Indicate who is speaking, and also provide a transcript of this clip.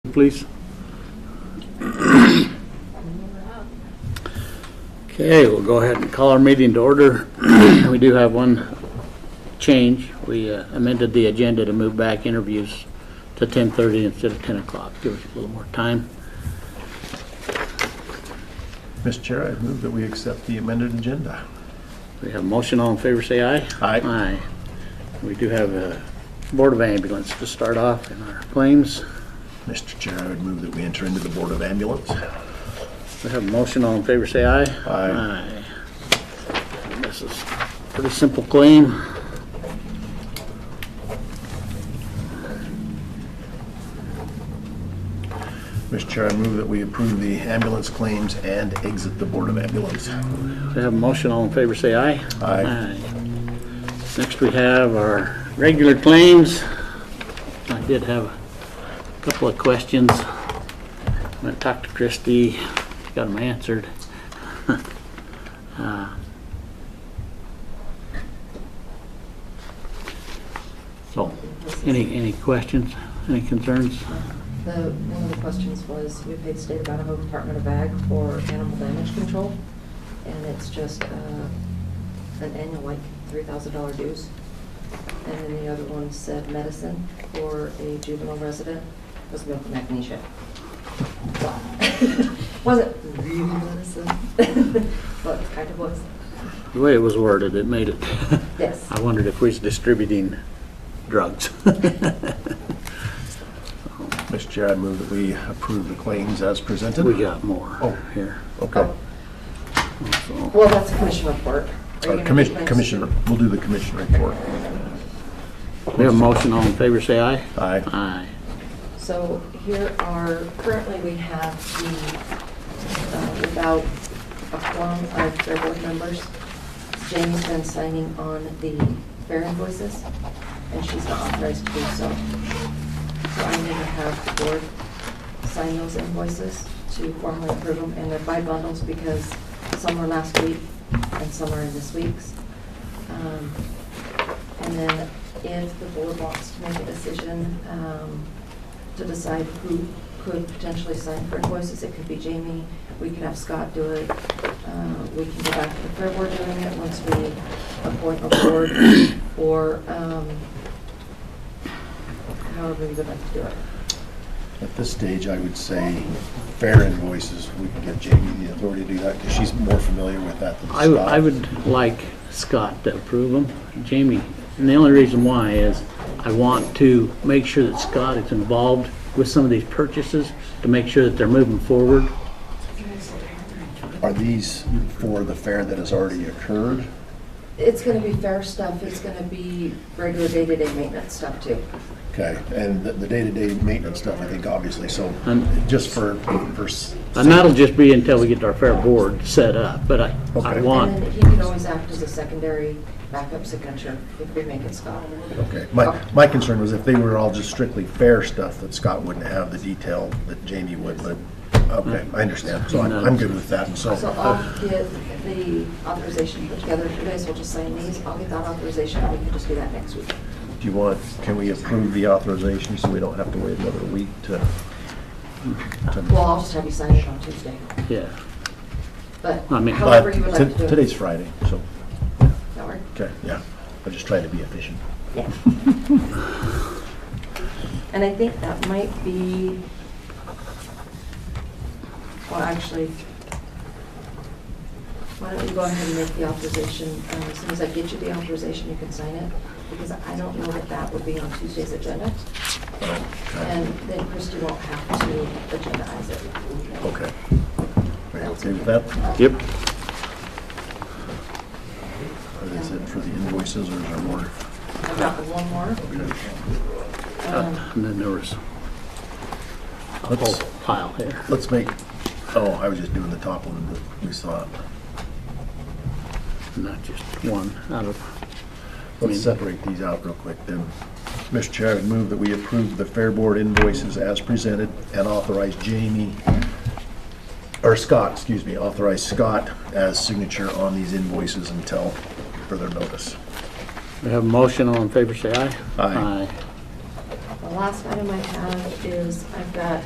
Speaker 1: please? Okay, we'll go ahead and call our meeting to order. We do have one change. We uh, amended the agenda to move back interviews to 10:30 instead of 10 o'clock. Give us a little more time.
Speaker 2: Mr. Chair, I move that we accept the amended agenda.
Speaker 1: We have a motion, all in favor, say aye.
Speaker 2: Aye.
Speaker 1: Aye. We do have a Board of Ambulance to start off in our claims.
Speaker 2: Mr. Chair, I would move that we enter into the Board of Ambulance.
Speaker 1: We have a motion, all in favor, say aye.
Speaker 2: Aye.
Speaker 1: Aye. This is a pretty simple claim.
Speaker 2: Mr. Chair, I move that we approve the ambulance claims and exit the Board of Ambulance.
Speaker 1: We have a motion, all in favor, say aye.
Speaker 2: Aye.
Speaker 1: Next, we have our regular claims. I did have a couple of questions. I went and talked to Christie, got them answered. Uh, So, any, any questions, any concerns?
Speaker 3: The, one of the questions was, we paid state of Idaho Department of Ag for animal damage control, and it's just uh, an annual, like, $3,000 dues. And then the other one said medicine for a juvenile resident was milk and magnesia. So, Wasn't really medicine, but kind of was,
Speaker 1: The way it was worded, it made it.
Speaker 3: yes.
Speaker 1: I wondered if we was distributing drugs.
Speaker 2: Mr. Chair, I move that we approve the claims as presented.
Speaker 1: We got more
Speaker 2: Oh.
Speaker 1: here.
Speaker 2: Okay.
Speaker 1: so.
Speaker 3: Well, that's a commission report. Are you
Speaker 2: Uh,
Speaker 3: gonna do
Speaker 2: commis-
Speaker 3: mine?
Speaker 2: Commissioner, we'll do the commission report.
Speaker 1: We have a motion, all in favor, say aye.
Speaker 2: Aye.
Speaker 1: Aye.
Speaker 3: So here are, currently we have the, uh, without a quorum of their board members, Jamie's been signing on the fair invoices, and she's not authorized to do so. So I need to have the board sign those invoices to formally approve them, and they're by bundles because some were last week and some are in this week's. Um, And then if the board wants to make a decision, um, to decide who could potentially sign for invoices. It could be Jamie, we could have Scott do it, Uh, we can go back to the fair board doing it once we appoint a board, or um, however you would like to do it.
Speaker 2: At this stage, I would say fair invoices. We can get Jamie the authority to do that because she's more familiar with that than
Speaker 1: I would, I
Speaker 2: Scott.
Speaker 1: would like Scott to approve them. Jamie, and the only reason why is I want to make sure that Scott is involved with some of these purchases to make sure that they're moving forward.
Speaker 2: Are these for the fair that has already occurred?
Speaker 3: It's going to be fair stuff, it's going to be regular day-to-day maintenance stuff too.
Speaker 2: Okay, and the- the day-to-day maintenance stuff, I think, obviously, so
Speaker 1: And-
Speaker 2: just for, for, s-
Speaker 1: And that'll just be until we get our fair board set up, but I, I
Speaker 2: Okay.
Speaker 3: And
Speaker 1: want,
Speaker 3: then he can always act as a secondary backup signature if we make it Scott.
Speaker 2: okay. My, my concern was if they were all just strictly fair stuff, that Scott wouldn't have the detail that Jamie would, but, okay, I understand. So I'm, I'm good with that, and so,
Speaker 3: So I'll get the authorization put together, if you guys will just sign these, I'll get that authorization, and we can just do that next week.
Speaker 2: do you want, can we approve the authorization so we don't have to wait another week to?
Speaker 3: Well, I'll just have you sign it on Tuesday,
Speaker 1: yeah.
Speaker 3: but
Speaker 1: I mean,
Speaker 3: however you would
Speaker 2: But
Speaker 3: like
Speaker 2: to-
Speaker 3: to do it.
Speaker 2: Today's Friday, so,
Speaker 3: That work?
Speaker 2: okay, yeah. I'm just trying to be efficient.
Speaker 3: Yeah. And I think that might be, well, actually, why don't you go ahead and make the authorization, um, as soon as I get you the authorization, you can sign it, because I don't know that that would be on Tuesday's agenda.
Speaker 2: Okay.
Speaker 3: And then Christie won't have to agendize it.
Speaker 2: Okay. Are you okay with that?
Speaker 1: Yep.
Speaker 2: Or is it for the invoices or is there more?
Speaker 3: I've got one more. Um,
Speaker 1: And then there was a whole
Speaker 2: Let's-
Speaker 1: pile here.
Speaker 2: Oh, Let's make, oh, I was just doing the top one that we saw.
Speaker 1: Not just one out of,
Speaker 2: Let's separate these out real quick then. Mr. Chair, I'd move that we approve the Fair Board invoices as presented and authorize Jamie, or Scott, excuse me, authorize Scott as signature on these invoices until further notice.
Speaker 1: we have a motion, all in favor, say aye.
Speaker 2: Aye.
Speaker 3: The last item I have is, I've got